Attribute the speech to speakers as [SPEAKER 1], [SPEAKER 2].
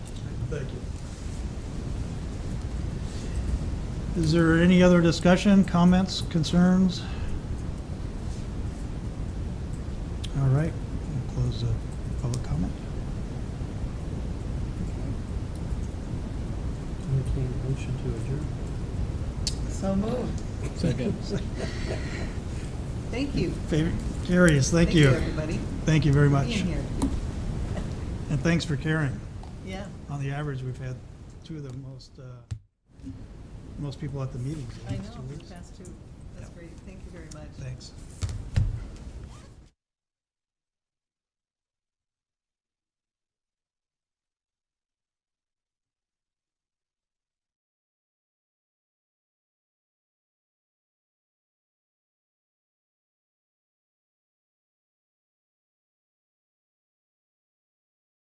[SPEAKER 1] Thank you. Is there any other discussion, comments, concerns? All right, we'll close the public comment.
[SPEAKER 2] Entertain a motion to adjourn.
[SPEAKER 3] So moved.
[SPEAKER 4] Second.
[SPEAKER 3] Thank you.
[SPEAKER 1] Favor- Carries, thank you.
[SPEAKER 3] everybody.
[SPEAKER 1] Thank you very much.
[SPEAKER 3] Being here.
[SPEAKER 1] And thanks for caring.
[SPEAKER 3] Yeah.
[SPEAKER 1] On the average, we've had two of the most, uh, most people at the meetings.
[SPEAKER 3] I know, we passed two. That's great. Thank you very much.
[SPEAKER 1] Thanks.